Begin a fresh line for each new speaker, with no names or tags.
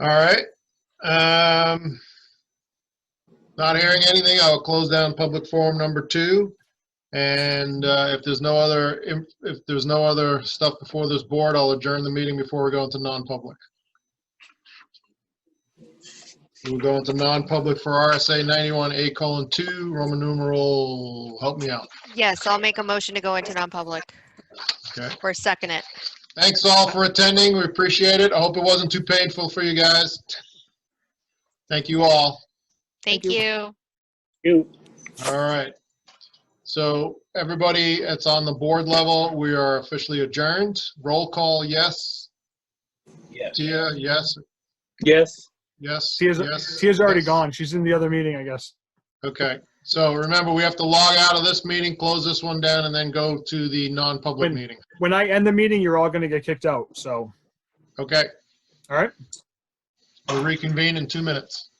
All right. Um, Not hearing anything, I'll close down public forum number two. And uh, if there's no other, if if there's no other stuff before this board, I'll adjourn the meeting before we go into non-public. We'll go into non-public for RSA 91A colon 2, Roman numeral, help me out.
Yes, I'll make a motion to go into non-public.
Okay.
Or second it.
Thanks all for attending. We appreciate it. I hope it wasn't too painful for you guys. Thank you all.
Thank you.
You.
All right. So everybody, it's on the board level. We are officially adjourned. Roll call, yes.
Yes.
Tia, yes,
Yes.
yes.
Tia's,
yes,
Tia's already
yes.
gone. She's in the other meeting, I guess.
Okay. So remember, we have to log out of this meeting, close this one down, and then go to the non-public
When-
meeting.
When I end the meeting, you're all going to get kicked out. So,
Okay,
all right.
we'll reconvene in two minutes.